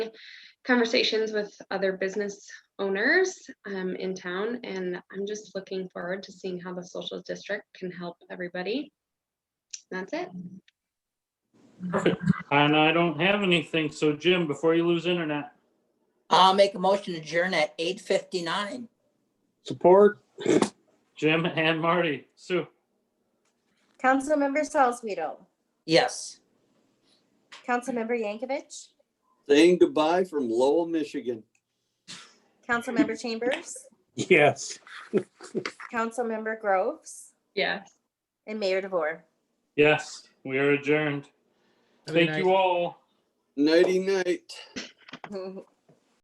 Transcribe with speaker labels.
Speaker 1: conversations with other business owners um, in town, and I'm just looking forward to seeing how the social district can help everybody. That's it.
Speaker 2: Perfect. And I don't have anything. So Jim, before you lose internet,
Speaker 3: I'll make a motion to adjourn at eight fifty-nine.
Speaker 4: Support?
Speaker 2: Jim and Marty, Sue,
Speaker 5: Councilmember Salzweedl,
Speaker 3: Yes.
Speaker 5: Councilmember Yankovic,
Speaker 4: Saying goodbye from Lowell, Michigan.
Speaker 5: Councilmember Chambers,
Speaker 4: Yes.
Speaker 5: Councilmember Groves,
Speaker 1: Yes.
Speaker 5: and Mayor DeVore.
Speaker 2: yes, we are adjourned.
Speaker 6: Have a
Speaker 2: Thank
Speaker 6: nice-
Speaker 2: you all.
Speaker 4: Nighty night.